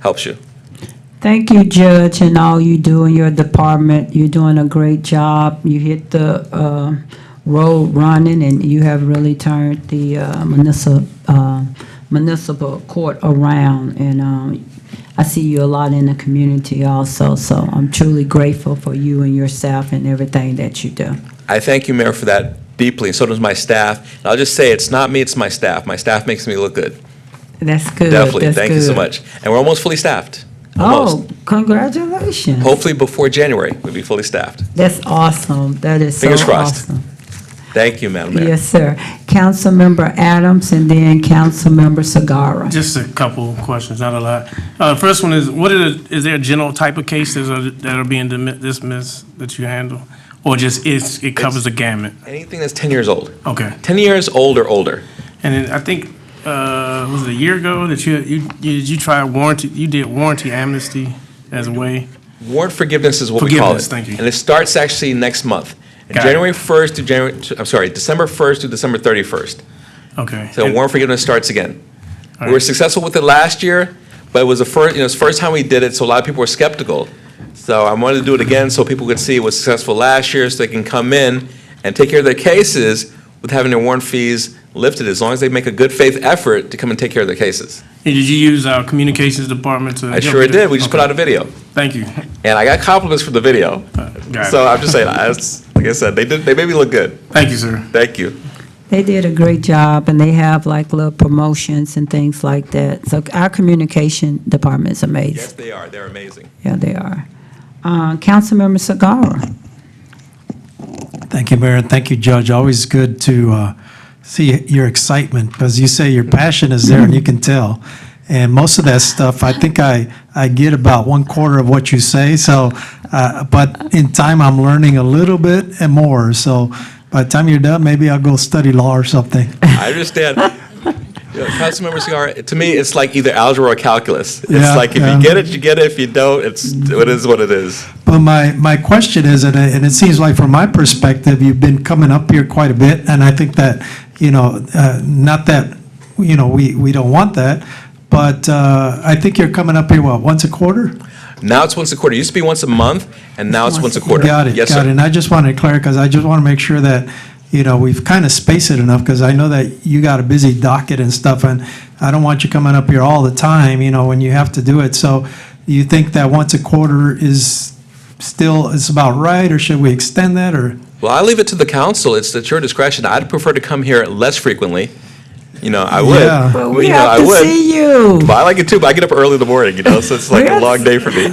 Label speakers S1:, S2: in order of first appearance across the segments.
S1: helps you.
S2: Thank you, Judge, and all you do in your department. You're doing a great job. You hit the uh, road running, and you have really turned the uh, municipal uh, municipal court around. And um, I see you a lot in the community also, so I'm truly grateful for you and your staff and everything that you do.
S1: I thank you, Mayor, for that deeply, and so does my staff. And I'll just say, it's not me, it's my staff. My staff makes me look good.
S2: That's good.
S1: Definitely.
S2: That's
S1: Thank you so
S2: good.
S1: much. And we're almost fully staffed.
S2: Oh,
S1: Almost.
S2: congratulations.
S1: Hopefully, before January, we'll be fully staffed.
S2: That's awesome. That is so
S1: Fingers crossed.
S2: awesome.
S1: Thank you, Madam Mayor.
S2: Yes, sir. Councilmember Adams and then Councilmember Sagara.
S3: Just a couple questions, not a lot. Uh, first one is, what are the, is there a general type of cases that are, that are being dimi- dismissed that you handle? Or just it's, it covers the gamut?
S1: Anything that's 10 years old.
S3: Okay.
S1: 10 years old or older.
S3: And then I think, uh, was it a year ago that you, you, you- you tried warranty, you did warranty amnesty as a way?
S1: Warrant forgiveness is what we call it.
S3: Forgiveness, thank you.
S1: And it starts actually next month.
S3: Got it.
S1: January 1st to January, I'm sorry, December 1st to December 31st.
S3: Okay.
S1: So warrant forgiveness starts again. We
S3: All
S1: were
S3: right.
S1: successful with it last year, but it was the first, you know, it's the first time we did it, so a lot of people were skeptical. So I wanted to do it again so people could see it was successful last year, so they can come in and take care of their cases with having their warrant fees lifted, as long as they make a good faith effort to come and take care of their cases.
S3: And did you use our communications department to?
S1: I sure did. We just put out a video,
S3: Thank you. Uh,
S1: and I got compliments for the video.
S3: Got it.
S1: So I'm just saying, I, it's- like I said, they did, they made me look good.
S3: Thank you, sir.
S1: Thank you.
S2: They did a great job and they have like little promotions and things like that. So our communication department is
S1: Yes,
S2: amazing.
S1: they are. They're amazing.
S2: Yeah, they are. Uh, Councilmember Sagara.
S4: Thank you, Mayor, and thank you, Judge. Always good to uh, see your excitement, because you say your passion is there, and you can tell. And most of that stuff, I think I, I get about one quarter of what you say, so, uh, but in time, I'm learning a little bit and more. So by the time you're done, maybe I'll go study law or something.
S1: I understand. You know, Councilmember Cigar, to me, it's like either algebra or calculus. It's
S4: Yeah,
S1: like if
S4: yeah.
S1: you get it, you get it. If you don't, it's it is what it is.
S4: But my, my question is, and it, and it seems like from my perspective, you've been coming up here quite a bit, and I think that, you know, uh, not that, you know, we, we don't want that, but uh, I think you're coming up here, what, once a quarter?
S1: Now it's once a quarter. It used to be once a month, and now it's once a quarter.
S4: Got it,
S1: Yes,
S4: got it.
S1: sir.
S4: And I just wanted to clarify, because I just want to make sure that, you know, we've kind of spaced it enough, because I know that you got a busy docket and stuff, and I don't want you coming up here all the time, you know, when you have to do it. So you think that once a quarter is still, is about right, or should we extend that, or?
S1: Well, I leave it to the council. It's at your discretion. I'd prefer to come here less frequently. You know, I would.
S4: Yeah.
S1: Well,
S2: We
S1: you know,
S2: have
S1: I
S2: to
S1: would.
S2: see you.
S1: But I like it too, but I get up early in the morning, you know, so it's like a
S2: Yes.
S1: long day for me.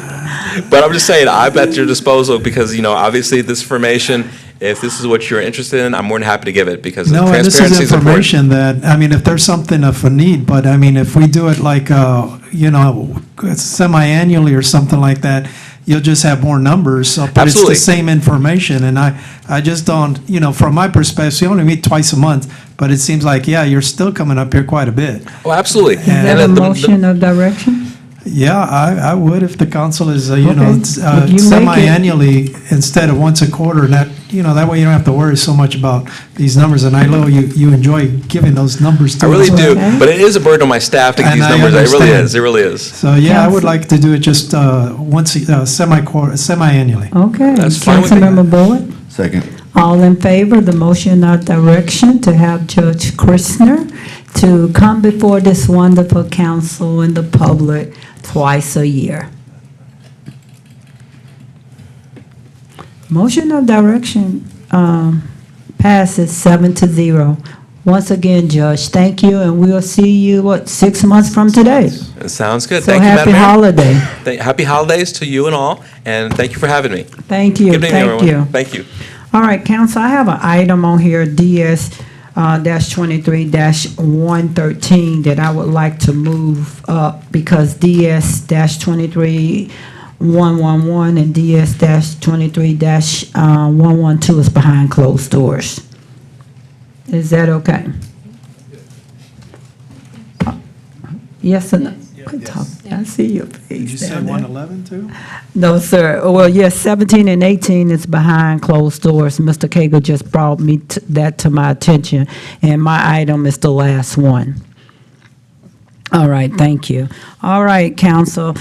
S1: But I'm just saying, I'm at your disposal because, you know, obviously this information, if this is what you're interested in, I'm more than happy to give it because
S4: No, and this
S1: transparency is
S4: is
S1: important.
S4: information that, I mean, if there's something of a need, but I mean, if we do it like, uh, you know, semi-annually or something like that, you'll just have more numbers, so- but it's
S1: Absolutely.
S4: the same information, and I, I just don't, you know, from my perspective, you only meet twice a month, but it seems like, yeah, you're still coming up here quite a bit.
S1: Oh, absolutely.
S2: Is that
S1: uh,
S2: a
S1: the- the-
S2: motion of direction?
S4: Yeah, I, I would if the council is, uh, you know,
S2: Okay.
S4: it's, uh,
S2: If you make it-
S4: semi-annually instead of once a quarter, and that, you know, that way you don't have to worry so much about these numbers, and I know you, you enjoy giving those numbers to
S1: I really
S4: us.
S1: do,
S2: Okay.
S1: but it is a burden on my staff to get
S4: And
S1: these
S4: I
S1: numbers. It really
S4: understand.
S1: is, it really is.
S4: So, yeah, I
S2: Council-
S4: would like to do it just uh, once, a- uh, semi-quarter, semi-annually.
S2: Okay.
S1: That's fine with me.
S2: Councilmember Boyd.
S5: Second.
S2: All in favor, of the motion of direction to have Judge Christner to come before this wonderful council and the public twice a year. Motion of direction um, passes seven to zero. Once again, Judge, thank you, and we'll see you, what, six months from today?
S1: It sounds good.
S2: So
S1: Thank you,
S2: happy
S1: Madam Mayor.
S2: holiday.
S1: Thank- Happy holidays to you and all, and thank you for having me.
S2: Thank you,
S1: Good evening,
S2: thank
S1: everyone.
S2: you.
S1: Thank you.
S2: All right, council, I have an item on here, DS uh, dash twenty-three dash one thirteen, that I would like to move up because DS dash twenty-three one one one and DS dash twenty-three dash uh, one one two is behind closed doors. Is that okay? Yes or no? Quit talking. I see your face down
S4: oh
S2: there.
S4: 111, too?
S2: No, sir. Oh, Well, yes, 17 and 18 is behind closed doors. Mr. Cagle just brought me t- that to my attention, and my item is the last one. All right, thank you. All right, council.